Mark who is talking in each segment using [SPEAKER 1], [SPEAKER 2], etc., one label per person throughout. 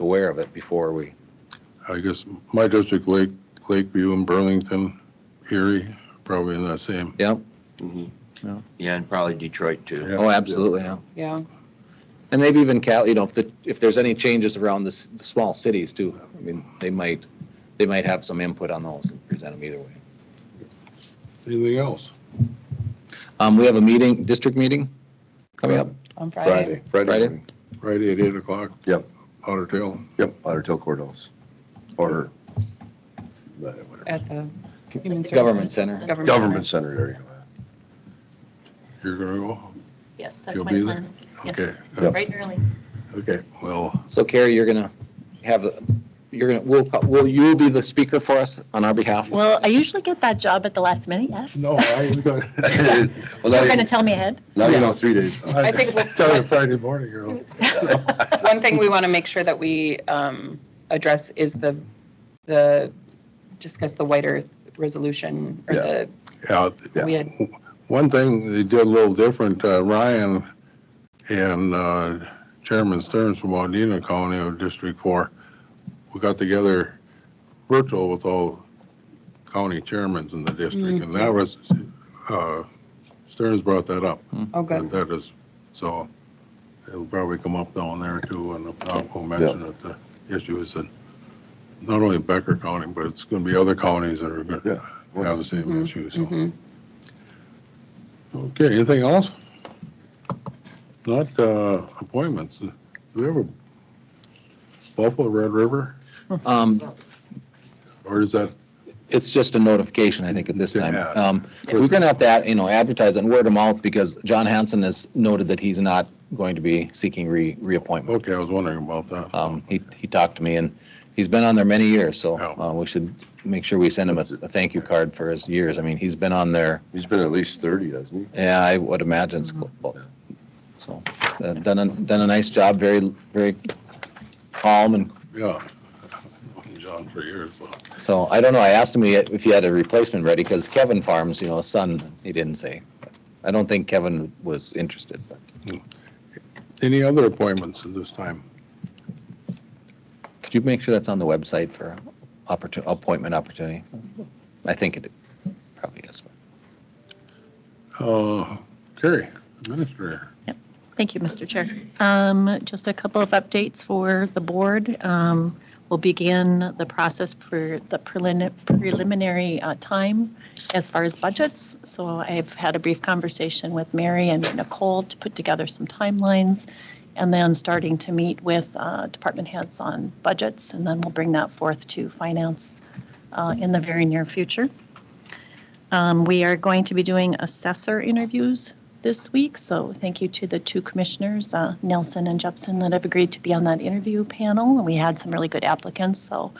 [SPEAKER 1] aware of it before we,
[SPEAKER 2] I guess my district, Lake, Lakeview and Burlington, Erie, probably in that same.
[SPEAKER 1] yeah,
[SPEAKER 3] Mhm.
[SPEAKER 1] Yeah.
[SPEAKER 3] Yeah, and probably Detroit too.
[SPEAKER 1] oh, absolutely, yeah.
[SPEAKER 4] Yeah,
[SPEAKER 1] And maybe even Cal, you know, if the, if there's any changes around the, s- the small cities too, I mean, they might, they might have some input on those and present them either way.
[SPEAKER 2] Anything else?
[SPEAKER 1] Um, we have a meeting, district meeting coming up.
[SPEAKER 4] on Friday.
[SPEAKER 5] Friday.
[SPEAKER 1] Friday?
[SPEAKER 5] morning.
[SPEAKER 2] Friday at eight o'clock?
[SPEAKER 5] Yep.
[SPEAKER 2] Otter Tail.
[SPEAKER 5] Yep, Otter Tail Courthouse. Or
[SPEAKER 4] At the Human Services.
[SPEAKER 1] Government Center.
[SPEAKER 5] Government Center area.
[SPEAKER 2] You're gonna go?
[SPEAKER 6] Yes, that's
[SPEAKER 2] You'll
[SPEAKER 6] my
[SPEAKER 2] be
[SPEAKER 6] plan.
[SPEAKER 2] Okay,
[SPEAKER 6] Yes,
[SPEAKER 2] uh,
[SPEAKER 6] right and early.
[SPEAKER 5] Okay.
[SPEAKER 2] well,
[SPEAKER 1] So Carrie, you're gonna have, a- you're gonna, will, will you be the speaker for us on our behalf?
[SPEAKER 6] Well, I usually get that job at the last minute, yes.
[SPEAKER 2] no, I ain't gonna.
[SPEAKER 5] Well,
[SPEAKER 6] You're
[SPEAKER 5] now
[SPEAKER 6] going to
[SPEAKER 5] you-
[SPEAKER 6] tell me ahead?
[SPEAKER 5] now you know, three days.
[SPEAKER 4] I think we'll-
[SPEAKER 2] Tell you Friday morning, girl.
[SPEAKER 4] One thing we want to make sure that we um, address is the, the, discuss the white earth resolution or
[SPEAKER 5] Yeah.
[SPEAKER 4] the,
[SPEAKER 2] Yeah,
[SPEAKER 4] we had,
[SPEAKER 2] One thing they did a little different, uh, Ryan and uh, Chairman Stearns from Wadena County of District Four, we got together virtual with all county chairmans in the district, and that was, uh, Stearns brought that up.
[SPEAKER 4] oh, good.
[SPEAKER 2] That is, so it'll probably come up down there too, and I'll I'll mention that the issue is in not only Becker County, but it's going to be other counties that are going to have the same
[SPEAKER 4] Mhm,
[SPEAKER 2] issue, so.
[SPEAKER 4] Mhm.
[SPEAKER 2] Okay, anything else? Not uh, appointments. Do we have a Buffalo Red River,
[SPEAKER 1] Um,
[SPEAKER 2] or is that,
[SPEAKER 1] It's just a notification, I think, at this time.
[SPEAKER 2] Yeah.
[SPEAKER 1] Um, We're going to have to, you know, advertise and word of mouth because John Hanson has noted that he's not going to be seeking re, reappointment.
[SPEAKER 2] okay, I was wondering about that.
[SPEAKER 1] Um, He, he talked to me and he's been on there many years, so
[SPEAKER 2] Yeah.
[SPEAKER 1] uh, we should make sure we send him a, a thank you card for his years. I mean, he's been on there,
[SPEAKER 5] He's been at least 30, hasn't
[SPEAKER 1] yeah, I would imagine. it's close. So, uh, done, a done a nice job, very, very calm and
[SPEAKER 2] Yeah. Known John for years, so.
[SPEAKER 1] So I don't know, I asked him if he had a replacement ready, because Kevin Farms, you know, son, he didn't say. I don't think Kevin was interested. but-
[SPEAKER 2] Any other appointments at this time?
[SPEAKER 1] Could you make sure that's on the website for opportu- appointment opportunity? I think it probably is.
[SPEAKER 2] Uh, Carrie, Administrator.
[SPEAKER 6] Thank you, Mr. Chair. Um, Just a couple of updates for the board. Um, We'll begin the process for the prelin- preliminary uh, time as far as budgets. So I've had a brief conversation with Mary and Nicole to put together some timelines, and then starting to meet with uh, department heads on budgets, and then we'll bring that forth to finance uh, in the very near future. Um, We are going to be doing assessor interviews this week, so thank you to the two commissioners, uh, Nelson and Jepson, that have agreed to be on that interview panel. And we had some really good applicants, so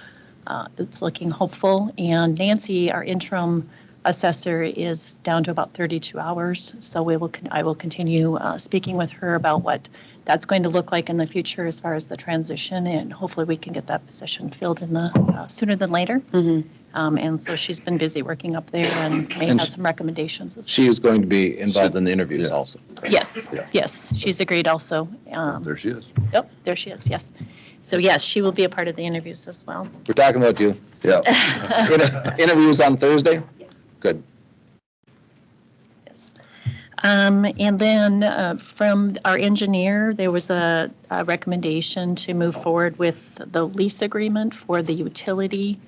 [SPEAKER 6] uh, it's looking hopeful. And Nancy, our interim assessor, is down to about 32 hours, so we will, con- I will continue uh, speaking with her about what that's going to look like in the future as far as the transition, and hopefully we can get that position filled in the, uh, sooner than later. Um, And so she's been busy working up there and may
[SPEAKER 1] Mm-hmm. And
[SPEAKER 6] have
[SPEAKER 1] she-
[SPEAKER 6] some recommendations as well.
[SPEAKER 1] She is going to be involved in the interviews
[SPEAKER 5] Yeah.
[SPEAKER 1] also.
[SPEAKER 6] Yes,
[SPEAKER 5] Yeah.
[SPEAKER 6] yes, she's agreed also.
[SPEAKER 5] he? There
[SPEAKER 6] Um,
[SPEAKER 5] she is.
[SPEAKER 6] Oh, there she is, yes. So yes, she will be a part of the interviews as well.
[SPEAKER 1] We're talking about you.
[SPEAKER 5] Yeah.
[SPEAKER 1] Inter- Interviews on Thursday? Good.
[SPEAKER 6] Um, And then uh, from our engineer, there was a a recommendation to move forward with the lease agreement for the utility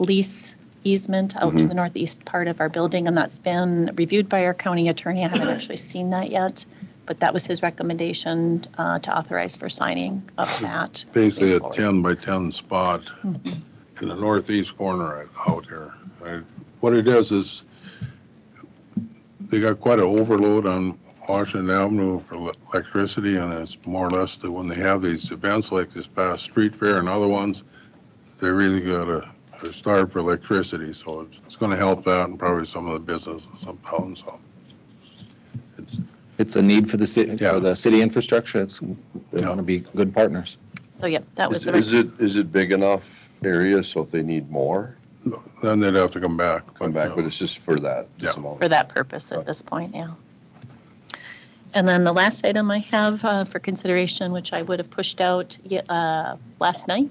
[SPEAKER 6] lease easement out to the northeast part of our building, and that's been reviewed by our county attorney. I haven't actually seen that yet, but that was his recommendation uh, to authorize for signing of that.
[SPEAKER 2] Basically a 10
[SPEAKER 6] Straightforward.
[SPEAKER 2] by 10 spot in the northeast corner out here. I- What it is, is they got quite an overload on Washington Avenue for le- electricity, and it's more or less that when they have these events like this past street fair and other ones, they really got a, they're starved for electricity, so it's- it's going to help out and probably some of the businesses up town, so. it's-
[SPEAKER 1] It's a need for the city,
[SPEAKER 2] Yeah.
[SPEAKER 1] for the city infrastructure. It's, we
[SPEAKER 2] Yeah.
[SPEAKER 1] want to be good partners.
[SPEAKER 6] So yep, that was
[SPEAKER 5] Is
[SPEAKER 6] the.
[SPEAKER 5] is it, is it big enough area so if they need more,
[SPEAKER 2] Then they'd have to come back.
[SPEAKER 5] come back, but it's just for that. this
[SPEAKER 2] Yeah.
[SPEAKER 5] amount.
[SPEAKER 6] for that purpose at this point, yeah. And then the last item I have uh, for consideration, which I would have pushed out ye- uh, last night,